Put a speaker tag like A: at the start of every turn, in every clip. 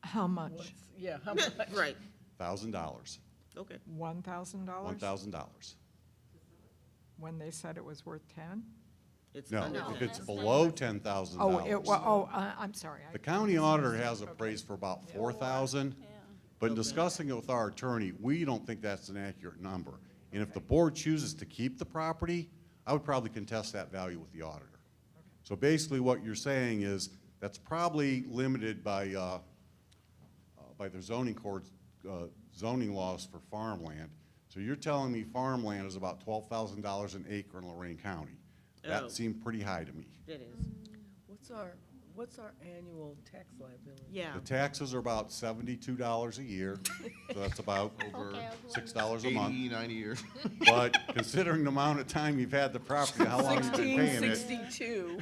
A: How much?
B: What's- Yeah, how much?
C: Right,
D: Thousand dollars,
C: okay.
A: One thousand
D: one
A: dollars?
D: thousand dollars.
A: When they said it was worth ten?
C: It's
D: No,
C: under
D: if
C: ten.
D: it's below ten thousand
A: Oh, it, wa-
D: dollars.
A: oh, I, I'm sorry. I-
D: The county auditor has it appraised for about four thousand, but in discussing it with our attorney, we don't think that's an accurate number. And if the board chooses to keep the property, I would probably contest that value with the auditor. So basically, what you're saying is, that's probably limited by, uh, uh, by the zoning courts, uh, zoning laws for farmland. So you're telling me farmland is about twelve thousand dollars an acre in Lorraine County?
C: Oh.
D: That seemed pretty high to me.
C: It is,
B: What's our, what's our annual tax liability?
C: yeah.
D: The taxes are about seventy-two dollars a year, so that's about over
E: Okay, I'll
D: six dollars a
F: 80,
D: month.
F: 90 years.
D: But considering the amount of time you've had the property, how long you've been paying it,
B: Sixty-two.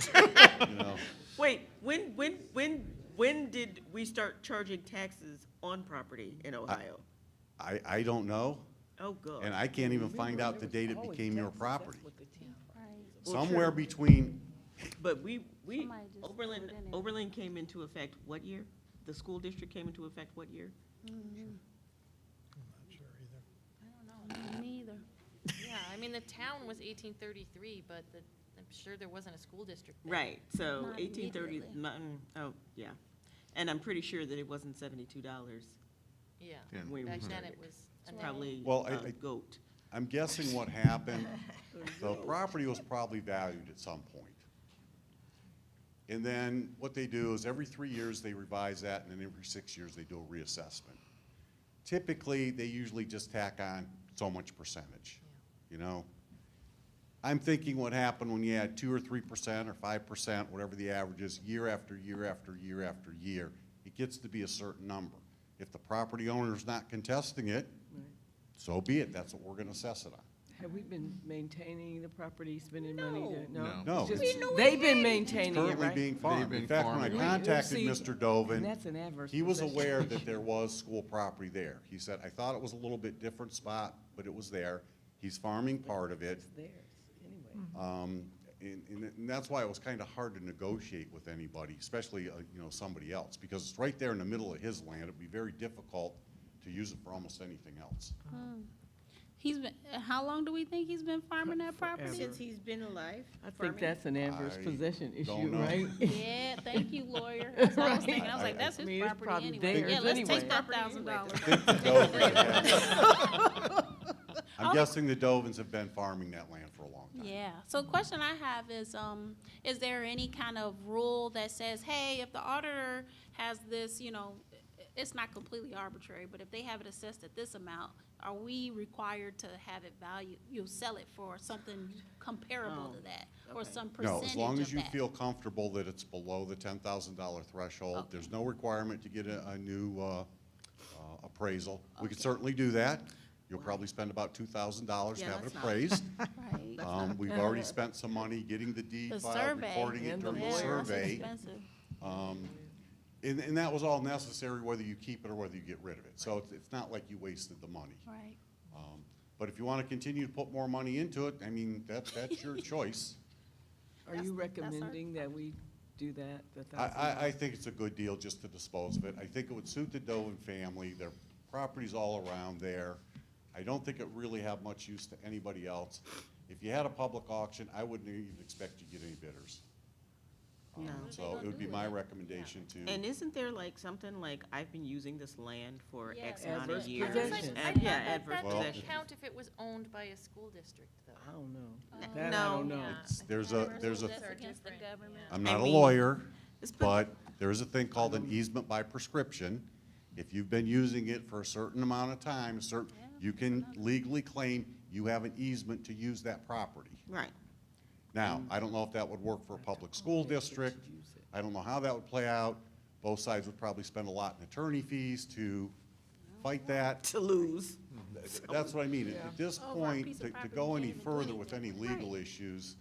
D: you know,
C: Wait, when, when, when, when did we start charging taxes on property in Ohio?
D: I, I don't know,
C: Oh, God.
D: and I can't even find out the
B: Remember,
D: date
B: there
D: it
B: was always
D: became your
B: taxes. That's
D: property.
B: what the team-
C: Well, true.
D: Somewhere between,
C: But we, we,
E: Somebody just
C: Oberlin,
E: threw it in there.
C: Oberlin came into effect what year? The school district came into effect what year?
E: I don't know, me either.
G: Yeah, I mean, the town was eighteen thirty-three, but the, I'm sure there wasn't a school district there.
C: Right, so
E: Not
C: eighteen thirty,
E: immediately.
C: oh, yeah. And I'm pretty sure that it wasn't seventy-two dollars.
G: Yeah,
F: Yeah.
C: when we
G: back then
C: started.
G: it was. a
C: It's
G: nickel.
C: probably
D: Well, I-
C: a
D: I-
C: goat.
D: I'm guessing what happened, the property was probably valued at some point. And then what they do is every three years, they revise that, and then every six years, they do a reassessment. Typically, they usually just tack on so much percentage, you know? I'm thinking what happened when you had two or three percent or five percent, whatever the average is, year after year after year after year, it gets to be a certain number. If the property owner's not contesting it, so be it, that's what we're gonna assess it on.
B: Have we been maintaining the property, spending money to, no?
F: No.
D: No.
B: It's just-
D: We
B: They've been maintaining it,
D: currently
B: right?
D: being farmed.
F: They've
D: In
F: been
D: fact, when I
F: farming.
B: Right.
D: contacted
B: See,
D: Mr.
B: And that's
D: Dovin,
B: an adverse.
D: he was
B: possession.
D: aware that there was school property there. He said, I thought it was a little bit different spot, but it was there. He's farming part of it.
B: It's theirs, anyway.
D: Um, and, and and that's why it was kind of hard to negotiate with anybody, especially, uh, you know, somebody else, because it's right there in the middle of his land. It'd be very difficult to use it for almost anything else.
E: He's been, uh, how long do we think he's been farming that property?
B: Forever.
C: he's been alive.
B: I think that's an adverse
D: I
B: possession issue,
D: don't know.
B: right?
E: Yeah, thank you, lawyer. That's what I was thinking, I was
D: Right.
E: like, that's
B: I mean,
E: his
B: it's
E: property
B: probably
E: anyway.
B: theirs
E: Yeah, let's
B: anyway.
E: take that thousand dollars.
D: I'm guessing the Dovins have been farming that land for a long time.
E: Yeah, so the question I have is, um, is there any kind of rule that says, hey, if the auditor has this, you know, i- it's not completely arbitrary, but if they have it assessed at this amount, are we required to have it valued, you sell it for something comparable
C: Oh,
E: to that? Or
C: okay.
E: some percentage of
D: No,
E: that?
D: as long as you feel comfortable that it's below the ten thousand dollar threshold, there's no requirement to get a, a new, uh, uh, appraisal. We could certainly do that. You'll probably spend about two thousand dollars to
C: Yeah,
D: have it
C: let's not.
D: appraised.
E: Right.
D: Um, we've already spent some money getting the deed
E: The
D: filed,
E: survey.
D: recording it
B: And the
D: during
E: Yeah,
D: the
B: lawyer.
E: that's
D: survey.
E: expensive.
D: Um, and, and that was all necessary, whether you keep it or whether you get rid of it. So it's, it's not like you wasted the money.
E: Right.
D: Um, But if you wanna continue to put more money into it, I mean, that, that's your choice.
B: Are you
E: That's- that's our-
B: recommending that we do that, the
D: I,
B: thousand?
D: I, I think it's a good deal just to dispose of it. I think it would suit the Dovin family, their property's all around there. I don't think it really have much use to anybody else. If you had a public auction, I wouldn't even expect you to get any bidders. Um,
C: No.
D: So it would be my recommendation
C: And
D: to,
C: isn't there like something like, I've been using this land for
G: Yeah,
C: X
G: that's
C: amount of
B: Adverse
C: years?
B: possession.
C: and- Yeah,
G: That-
C: adverse
G: That doesn't
C: possession.
D: possession.
G: count if it was owned by a school district,
B: I
G: though.
B: don't know.
G: Oh.
B: That I don't
C: No.
B: know.
D: it's- there's a, there's a,
E: That's against the
G: different,
E: government.
D: I'm
C: uh, I
D: not a
C: mean-
D: lawyer,
C: It's put-
D: but there is a thing called an easement by prescription. If you've been using it for a certain amount of time, certain, you can legally claim you have an easement to use that property.
C: Right,
D: Now, I don't know if that would work for a public school district. I don't know how that would play out. Both sides would probably spend a lot in attorney fees to fight that.
C: to lose.
D: That's what I mean. At- At this
E: Over Oh, a
D: point,
E: piece
D: to,
E: of
D: to
E: property
D: go
E: can't
D: any
E: even do
D: further with any
E: anything.
D: legal issues,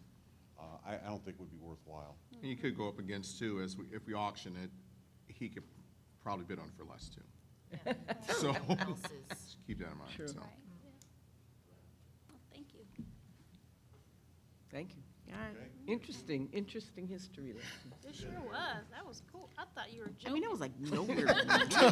D: uh, I, I don't think would be worthwhile.
F: And you could go up against two, as we, if we auction it, he could probably bid on it for less too. So,
G: Else's.
F: just keep that in mind, so.
E: Right, yeah. Well, Thank you.
B: Thank you.
C: All right.
B: Interesting, interesting history lesson.
E: It sure was. That was cool. I thought you were joking.
C: I mean, that was like nowhere